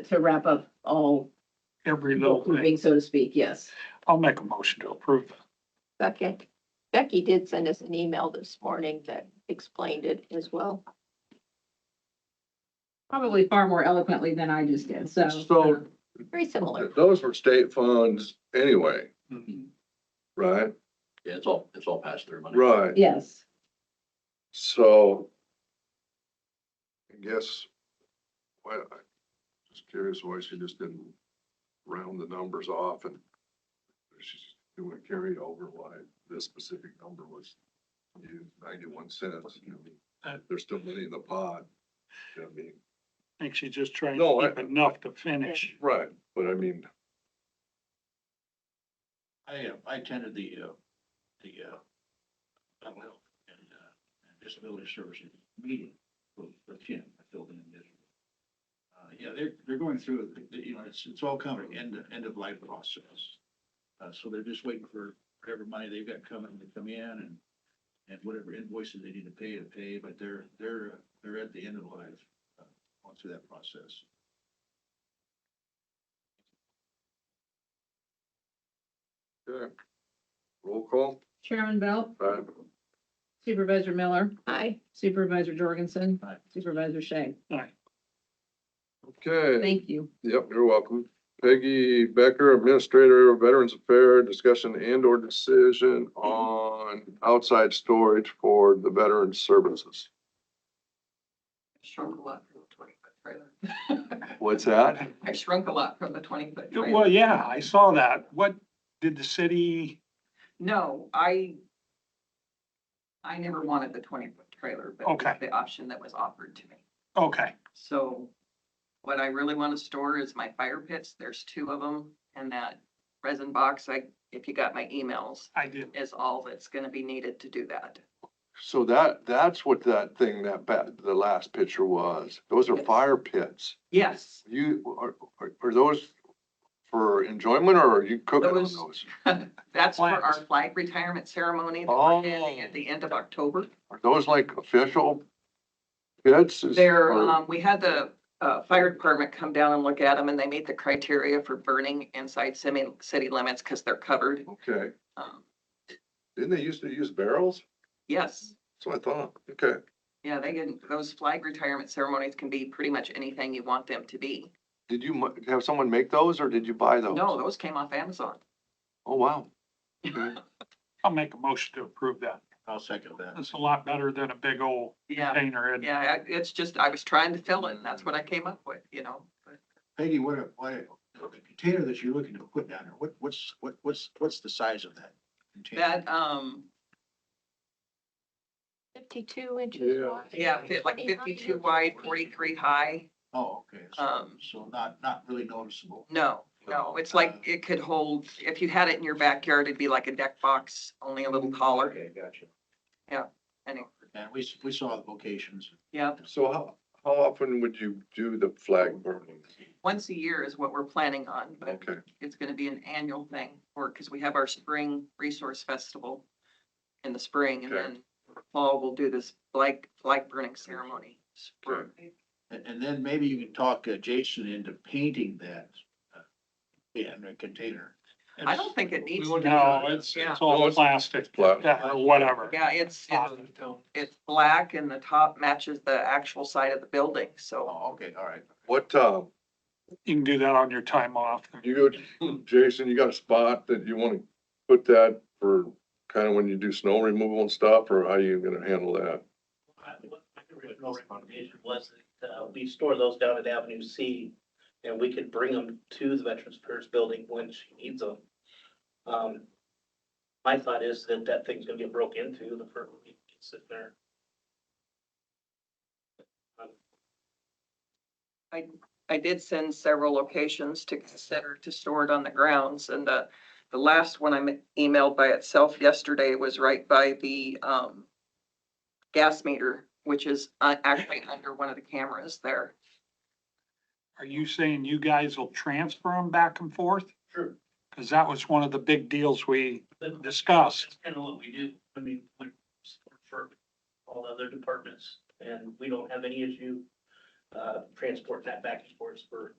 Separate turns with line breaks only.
to wrap up all
every little thing.
moving, so to speak, yes.
I'll make a motion to approve.
Second, Becky did send us an email this morning that explained it as well.
Probably far more eloquently than I just did, so.
So-
uh,
Very similar.
Those were state funds anyway, Mm-hmm.
Mhm.
right?
Yeah, it's all, it's all passed through money.
Right,
Yes,
so I guess, why, I'm just curious why she just didn't round the numbers off and she's doing a carryover, why this specific number was used ninety-one cents. I mean, There's still money in the pot. I mean,
I think she's just trying
No,
to
I-
keep enough to finish.
right, but I mean,
I, uh, I attended the, uh, the, uh, mental health and, uh, and disability services meeting with, with Jim, I filled in this. Uh, yeah, they're, they're going through, the- the- you know, it's, it's all coming, end, end of life process. Uh, so they're just waiting for whatever money they've got coming to come in and, and whatever invoices they need to pay to pay, but they're, they're, uh, they're at the end of life, uh, going through that process.
yeah. Roll call,
Chairman Belt,
right?
Supervisor Miller,
Aye.
Supervisor Jorgensen,
Aye.
Supervisor Shea.
Okay.
Thank you.
Yep, you're welcome. Peggy Becker, Administrator of Veterans Affairs, discussion and or decision on outside storage for the veteran services.
I shrunk a lot from the twenty foot trailer.
What's that?
I shrunk a lot from the twenty foot
Well,
trailer.
yeah, I saw that. What did the city,
No, I, I never wanted the twenty foot trailer, but it was
Okay.
the option that was offered to me.
okay,
So what I really want to store is my fire pits. There's two of them. And that resin box, I, if you got my emails,
I did.
is all that's going to be needed to do that.
So that, that's what that thing, that ba, the last picture was. Those are
Yes.
fire pits.
Yes,
You, are, are, are those for enjoyment or are you cooking on
Those-
those?
that's for our
Flags.
flag retirement ceremony that we're
Oh.
having at the end of October.
Are those like official pits? Is-
There,
or-
um, we had the, uh, fire department come down and look at them and they meet the criteria for burning inside semi, city limits because they're covered.
Okay,
Um,
didn't they used to use barrels?
Yes,
That's what I thought. Okay,
yeah, they can, those flag retirement ceremonies can be pretty much anything you want them to be.
did you mu- have someone make those or did you buy those?
No, those came off Amazon.
Oh, wow.
I'll make a motion to approve that.
I'll second that.
That's a lot better than a big old
Yeah,
container. And
yeah, I- it's just, I was trying to fill in, that's what I came up with, you know. but
Peggy, what, a- what, a- the container that you're looking to put down there, what, what's, what, what's, what's the size of that? container?
That, um,
Fifty-two inches
Yeah.
wide.
yeah, fit like fifty-two wide, forty-three high.
Oh, okay, so,
Um,
so not, not really noticeable.
No, no, it's like, it could hold, if you had it in your backyard, it'd be like a deck box, only a little taller.
Mm. Okay, gotcha.
Anyway,
And we, s- we saw the locations.
yeah,
So how, how often would you do the flag burning?
once a year is what we're planning on, but
Okay,
it's gonna be an annual thing, or, cause we have our spring resource festival in the spring, and
Okay.
then fall, we'll do this flag, flag burning ceremony.
Okay.
And, and then maybe you can talk uh, Jason into painting that uh, in a container.
I don't think it needs to be.
No, it's,
Yeah.
it's all
it's-
plastic,
Pla-
yeah, or whatever. Uh,
Yeah, it's, it's, it's black and the top matches the actual side of the building, so,
Oh, okay, all right.
what, uh,
You can do that on your time off.
you go, Jason, you got a spot that you wanna put that for kind of when you do snow removal and stuff, or how you gonna handle that?
I- I can really no recommendation was that uh, we store those down at Avenue C and we could bring them to the Veterans Affairs Building when she needs them. Um, my thought is that that thing's gonna get broke into the first week it's sitting there.
I did send several locations to consider to store it on the grounds, and the, the last one I emailed by itself yesterday was right by the, um, gas meter, which is uh, actually under one of the cameras there.
Are you saying you guys will transfer them back and forth?
Sure.
Cause that was one of the big deals we
But
discussed.
That's kind of what we do. I mean, we support for all the other departments and we don't have any issue uh, transporting that back and forth for